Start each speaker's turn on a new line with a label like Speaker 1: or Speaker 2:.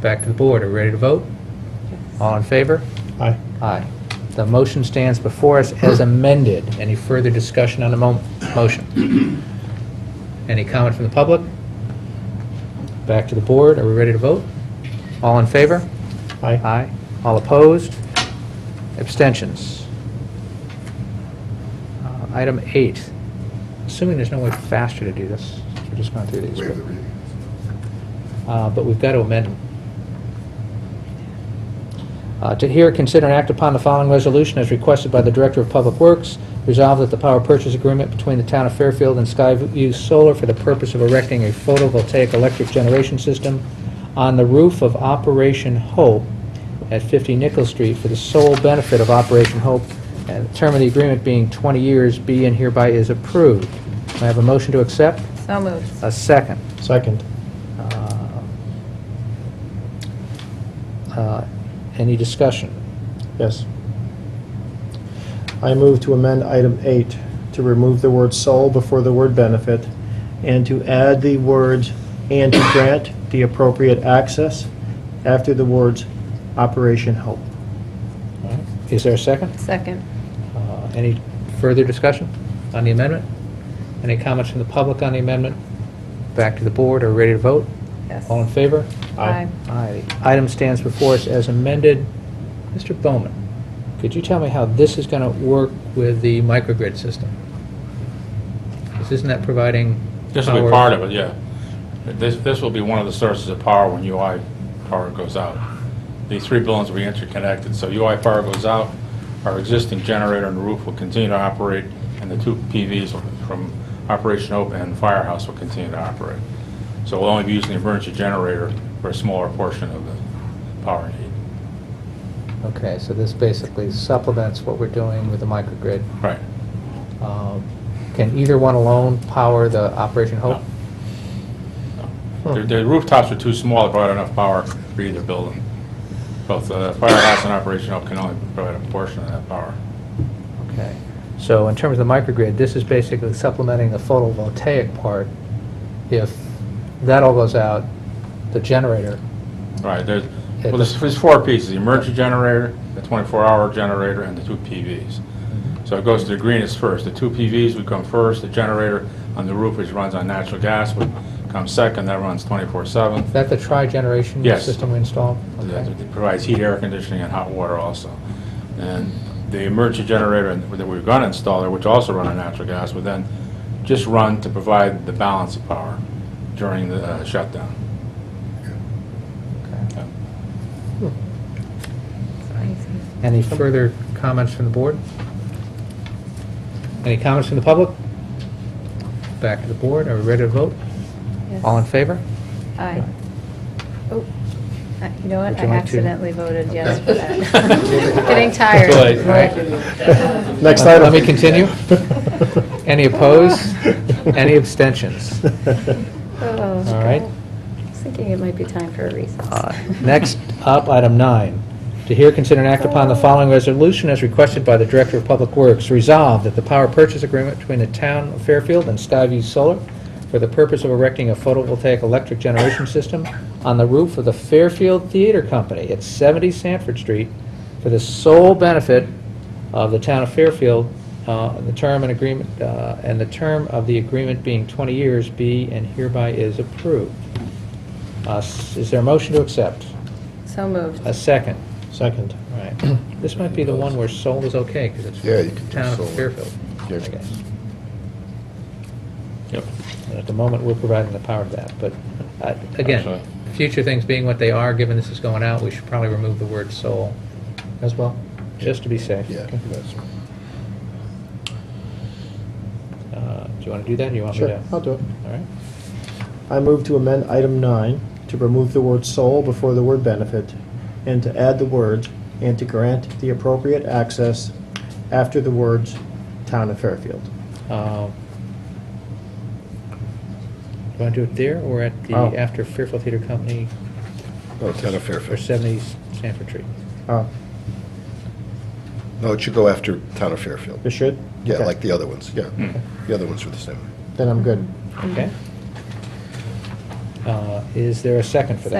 Speaker 1: Back to the board. Are we ready to vote? All in favor?
Speaker 2: Aye.
Speaker 1: Aye. The motion stands before us as amended. Any further discussion on the mo- motion? Any comment from the public? Back to the board. Are we ready to vote? All in favor?
Speaker 2: Aye.
Speaker 1: Aye. All opposed? Abstentions? Uh, Item eight, assuming there's no way faster to do this, we're just going through these.
Speaker 3: Waive the
Speaker 1: but-
Speaker 3: reading.
Speaker 1: uh, but we've got to amend them. Uh, To hear, consider, and act upon the following resolution as requested by the Director of Public Works, resolve that the power purchase agreement between the Town of Fairfield and Skyview Solar for the purpose of erecting a photovoltaic electric generation system on the roof of Operation Hope at 50 Nickel Street for the sole benefit of Operation Hope, and the term of the agreement being 20 years, be and hereby is approved. May I have a motion to accept?
Speaker 4: So moved.
Speaker 1: A second.
Speaker 2: Second.
Speaker 1: Uh, Any discussion?
Speaker 2: Yes. I move to amend item eight to remove the word "sole" before the word "benefit" and to add the words "and to grant the appropriate access" after the words "Operation Hope."
Speaker 1: Is there a second?
Speaker 4: Second.
Speaker 1: Uh, Any further discussion on the amendment? Any comments from the public on the amendment? Back to the board, are we ready to vote?
Speaker 4: Yes.
Speaker 1: All in favor?
Speaker 4: Aye.
Speaker 1: Aye. The Item stands before us as amended. Mr. Bowman, could you tell me how this is going to work with the microgrid system? 'Cause Isn't that providing
Speaker 5: This will
Speaker 1: power-
Speaker 5: be part of it, yeah. This, this will be one of the sources of power when UI power goes out. These three buildings will be interconnected, so UI power goes out, our existing generator on the roof will continue to operate, and the two PVs will- from Operation Hope and Firehouse will continue to operate. So we'll only be using the emergency generator for a smaller portion of the power need.
Speaker 1: Okay, so this basically supplements what we're doing with the microgrid.
Speaker 5: Right.
Speaker 1: Um, Can either one alone power the Operation Hope?
Speaker 5: The the rooftops are too small to provide enough power for either building. Both the Firehouse and Operation Hope can only provide a portion of that power.
Speaker 1: Okay. So in terms of the microgrid, this is basically supplementing the photovoltaic part. If that all goes out, the generator,
Speaker 5: Right, there's,
Speaker 1: Yeah,
Speaker 5: well, there's, there's four pieces, the emergency generator, the twenty-four hour generator, and the two PVs. So it goes to the greenest first, the two PVs would come first, the generator on the roof, which runs on natural gas, would come second, that runs twenty-four seven.
Speaker 1: is that the tri-generation
Speaker 5: Yes.
Speaker 1: system we installed? Okay.
Speaker 5: It provides heat, air conditioning, and hot water also. And the emergency generator that we're gonna install there, which also run on natural gas, would then just run to provide the balance of power during the uh, shutdown.
Speaker 1: Okay.
Speaker 5: Yeah.
Speaker 1: Any further comments from the board? Any comments from the public? Back to the board. Are we ready to vote?
Speaker 4: Yes.
Speaker 1: All in favor?
Speaker 4: Aye. Oh, I- you know what?
Speaker 1: Would
Speaker 4: I
Speaker 1: you like to-
Speaker 4: accidentally voted yes for that.
Speaker 3: Okay.
Speaker 4: Getting tired.
Speaker 2: Too late,
Speaker 1: right?
Speaker 2: Next
Speaker 1: Let- let
Speaker 2: item.
Speaker 1: me continue. Any opposed? Any abstentions?
Speaker 4: Oh,
Speaker 1: All right.
Speaker 4: I was thinking it might be time for a
Speaker 1: Uh,
Speaker 4: recess.
Speaker 1: Next up, item nine. To hear, consider, and act upon the following resolution as requested by the Director of Public Works. Resolved that the power purchase agreement between the Town of Fairfield and Skyview Solar for the purpose of erecting a photovoltaic electric generation system on the roof of the Fairfield Theater Company at 70 Sanford Street for the sole benefit of the Town of Fairfield, uh, the term and agreement, uh, and the term of the agreement being 20 years, be and hereby is approved. Uh, s- Is there a motion to accept?
Speaker 4: So moved.
Speaker 1: A second.
Speaker 2: Second.
Speaker 1: All right. This might be the one where Seoul is okay, because it's
Speaker 3: Yeah, you can do
Speaker 1: town
Speaker 3: Seoul.
Speaker 1: of Fairfield, I
Speaker 3: Yeah.
Speaker 1: guess.
Speaker 5: Yep.
Speaker 1: And At the moment, we're providing the power to that, but uh, again,
Speaker 5: Absolutely.
Speaker 1: future things being what they are, given this is going out, we should probably remove the word Seoul as well, just to be safe.
Speaker 3: Yeah,
Speaker 1: Okay.
Speaker 3: that's right.
Speaker 1: Uh, Do you want to do that, or you want me
Speaker 2: Sure,
Speaker 1: to?
Speaker 2: I'll do it.
Speaker 1: All right.
Speaker 2: I move to amend item nine to remove the word "sole" before the word "benefit" and to add the words "and to grant the appropriate access" after the words "Town of Fairfield."
Speaker 1: Um, Do you want to do it there, or at the,
Speaker 2: Oh.
Speaker 1: after Fairfield Theater Company
Speaker 3: No, Town of
Speaker 1: for
Speaker 3: Fairfield.
Speaker 1: 70 Sanford Street?
Speaker 2: Uh,
Speaker 3: No, it should go after Town of Fairfield.
Speaker 2: It should?
Speaker 3: Yeah,
Speaker 2: Okay.
Speaker 3: like the other ones, yeah. The other ones were the same.
Speaker 2: Then I'm good.
Speaker 1: Okay. Uh, Is there a second for that?